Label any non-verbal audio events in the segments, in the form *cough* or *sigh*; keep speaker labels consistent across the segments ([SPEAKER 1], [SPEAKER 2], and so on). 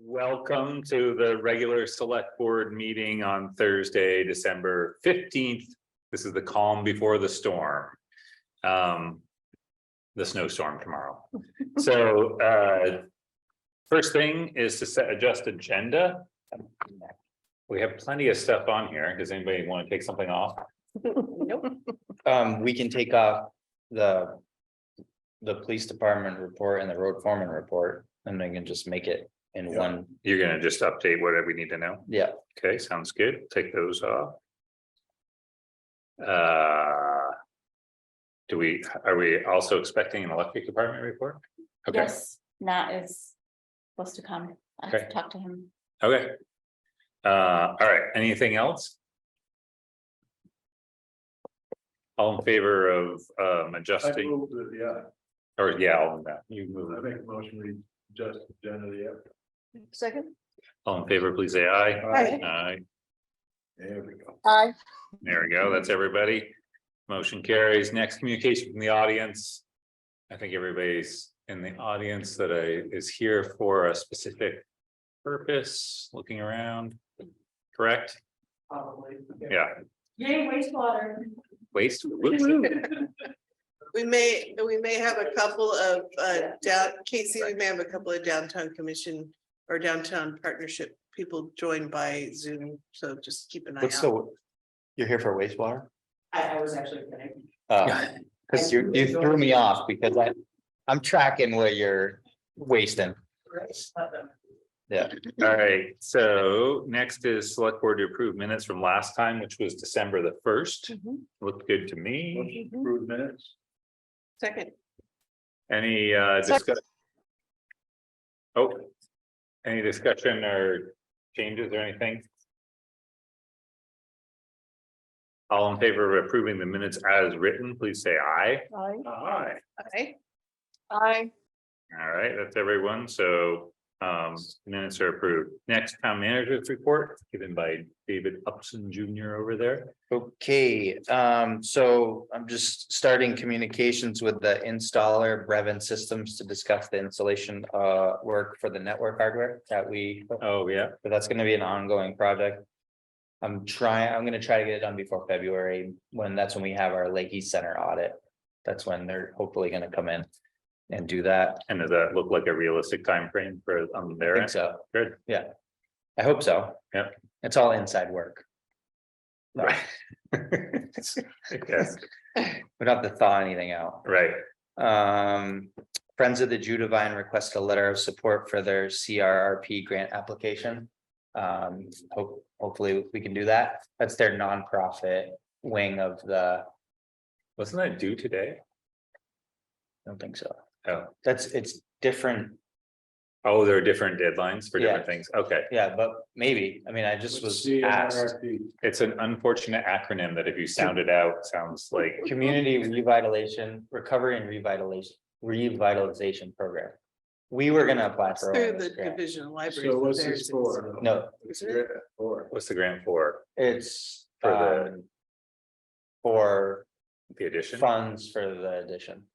[SPEAKER 1] Welcome to the regular select board meeting on Thursday, December fifteenth. This is the calm before the storm. Um, the snowstorm tomorrow. So, uh, first thing is to set adjust agenda. We have plenty of stuff on here. Does anybody want to take something off?
[SPEAKER 2] Nope.
[SPEAKER 3] Um, we can take off the. The police department report and the road foreman report, and then can just make it in
[SPEAKER 1] Yeah.
[SPEAKER 3] one,
[SPEAKER 1] You're gonna just update whatever we need to know?
[SPEAKER 3] yeah,
[SPEAKER 1] Okay, sounds good. Take those off. Uh. Do we, are we also expecting an electric department report? Okay,
[SPEAKER 2] Yes, Nat is supposed to come. I have to
[SPEAKER 1] Okay.
[SPEAKER 2] talk to him.
[SPEAKER 1] okay. Uh, all right, anything else? All in favor of um
[SPEAKER 4] I
[SPEAKER 1] adjusting
[SPEAKER 4] moved it, yeah,
[SPEAKER 1] or yeah, all of that, you
[SPEAKER 4] I
[SPEAKER 1] move. it.
[SPEAKER 4] make a motion, we just generally, yeah,
[SPEAKER 2] Second?
[SPEAKER 1] All in favor, please say aye.
[SPEAKER 2] Aye.
[SPEAKER 1] Aye,
[SPEAKER 4] there we go.
[SPEAKER 2] Aye.
[SPEAKER 1] there we go. That's everybody. Motion carries. Next communication from the audience. I think everybody's in the audience that I is here for a specific purpose, looking around. Correct?
[SPEAKER 5] Probably.
[SPEAKER 1] Yeah,
[SPEAKER 5] Yay, wastewater.
[SPEAKER 1] waste.
[SPEAKER 6] We may, we may have a couple of, uh, down, Casey, we may have a couple of downtown commission or downtown partnership people joined by Zoom, so just keep an eye
[SPEAKER 3] what's
[SPEAKER 6] out.
[SPEAKER 3] the? You're here for wastewater?
[SPEAKER 5] I, I was actually kidding.
[SPEAKER 3] Uh, cause you, you threw me off because I, I'm tracking what you're wasting.
[SPEAKER 1] All right, so next is select board to approve minutes from last time, which was December the first. Looked good to me.
[SPEAKER 4] Motion approved minutes,
[SPEAKER 6] Second,
[SPEAKER 1] Any uh discussion? Oh, any discussion or changes or anything? All in favor of approving the minutes as written, please say aye.
[SPEAKER 2] Aye.
[SPEAKER 4] aye,
[SPEAKER 6] okay,
[SPEAKER 2] Aye.
[SPEAKER 1] All right, that's everyone, so um minutes are approved. Next, town manager's report given by David Upson Junior over there.
[SPEAKER 3] Okay, um, so I'm just starting communications with the installer Brevin Systems to discuss the installation uh work for the network hardware that we
[SPEAKER 1] Oh, yeah.
[SPEAKER 3] but that's gonna be an ongoing project. I'm trying, I'm gonna try to get it done before February, when that's when we have our Lake East Center audit. That's when they're hopefully gonna come in and do that.
[SPEAKER 1] And does that look like a realistic timeframe for um, on
[SPEAKER 3] I
[SPEAKER 1] their
[SPEAKER 3] think
[SPEAKER 1] end?
[SPEAKER 3] so.
[SPEAKER 1] Good.
[SPEAKER 3] Yeah, I hope so.
[SPEAKER 1] Yep.
[SPEAKER 3] It's all inside work. *laughs*
[SPEAKER 1] Right. Yes,
[SPEAKER 3] We don't have to thaw anything out.
[SPEAKER 1] right.
[SPEAKER 3] Um, Friends of the Judavine request a letter of support for their CRRP grant application. Um, hope, hopefully we can do that. That's their nonprofit wing of the, I
[SPEAKER 1] Wasn't that due today?
[SPEAKER 3] don't think so.
[SPEAKER 1] Oh,
[SPEAKER 3] That's, it's different,
[SPEAKER 1] oh, there are different deadlines for different
[SPEAKER 3] Yeah.
[SPEAKER 1] things. Okay.
[SPEAKER 3] yeah, but maybe, I mean, I just was asked.
[SPEAKER 4] CRRP,
[SPEAKER 1] It's an unfortunate acronym that if you sound it out, sounds like,
[SPEAKER 3] Community revitalization, recovery and revitalization, revitalization program. We were gonna apply for. one
[SPEAKER 6] through
[SPEAKER 3] of
[SPEAKER 6] the
[SPEAKER 3] those grants.
[SPEAKER 6] division of libraries.
[SPEAKER 4] so what's
[SPEAKER 6] there's-
[SPEAKER 4] this for?
[SPEAKER 3] No.
[SPEAKER 4] It's great, Or,
[SPEAKER 1] what's the grant for?
[SPEAKER 3] It's.
[SPEAKER 1] For the-
[SPEAKER 3] um, For
[SPEAKER 1] The addition?
[SPEAKER 3] funds for the addition.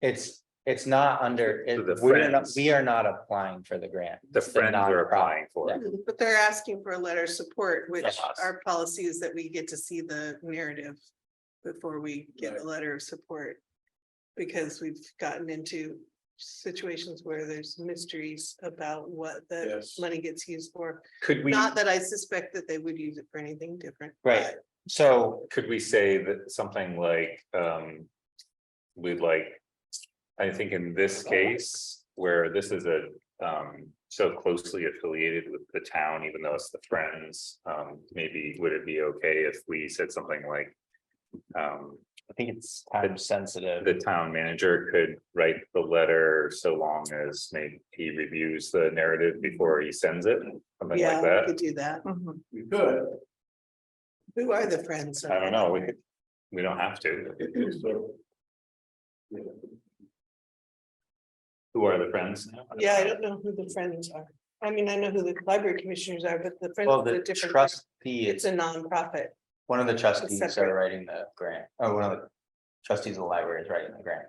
[SPEAKER 3] It's, it's not under,
[SPEAKER 1] For the
[SPEAKER 3] it- we're not,
[SPEAKER 1] friends.
[SPEAKER 3] we are not applying for the grant.
[SPEAKER 1] The
[SPEAKER 3] It's a
[SPEAKER 1] friends are
[SPEAKER 3] nonprofit.
[SPEAKER 1] applying for it.
[SPEAKER 6] But they're asking for a letter of support, which
[SPEAKER 3] Yes.
[SPEAKER 6] our policy is that we get to see the narrative before we get a letter of support. Because we've gotten into situations where there's mysteries about what the
[SPEAKER 4] Yes.
[SPEAKER 6] money gets used for.
[SPEAKER 1] Could we,
[SPEAKER 6] Not that I suspect that they would use it for anything different.
[SPEAKER 3] Right. So,
[SPEAKER 1] could we say that something like, um, we'd like, I think in this case, where this is a, um, so closely affiliated with the town, even though it's the Friends, um, maybe would it be okay if we said something like, um,
[SPEAKER 3] I think it's time sensitive.
[SPEAKER 1] the town manager could write the letter so long as maybe he reviews the narrative before he sends it,
[SPEAKER 6] but
[SPEAKER 1] something
[SPEAKER 6] Yeah,
[SPEAKER 1] like
[SPEAKER 6] we
[SPEAKER 1] that.
[SPEAKER 6] could do that.
[SPEAKER 4] we could,
[SPEAKER 6] Who are the friends?
[SPEAKER 1] I don't know, we, could- we don't have to.
[SPEAKER 4] so. Yeah,
[SPEAKER 1] Who are the Friends? now?
[SPEAKER 6] Yeah, I don't know who the friends are. I mean, I know who the library commissioners are, but the friends.
[SPEAKER 3] Well,
[SPEAKER 6] is a
[SPEAKER 3] the
[SPEAKER 6] different-
[SPEAKER 3] trustee, it's,
[SPEAKER 6] It's a nonprofit.
[SPEAKER 3] one of the trustees
[SPEAKER 6] separate.
[SPEAKER 3] are writing the grant, or one of the trustees of the library is writing the grant.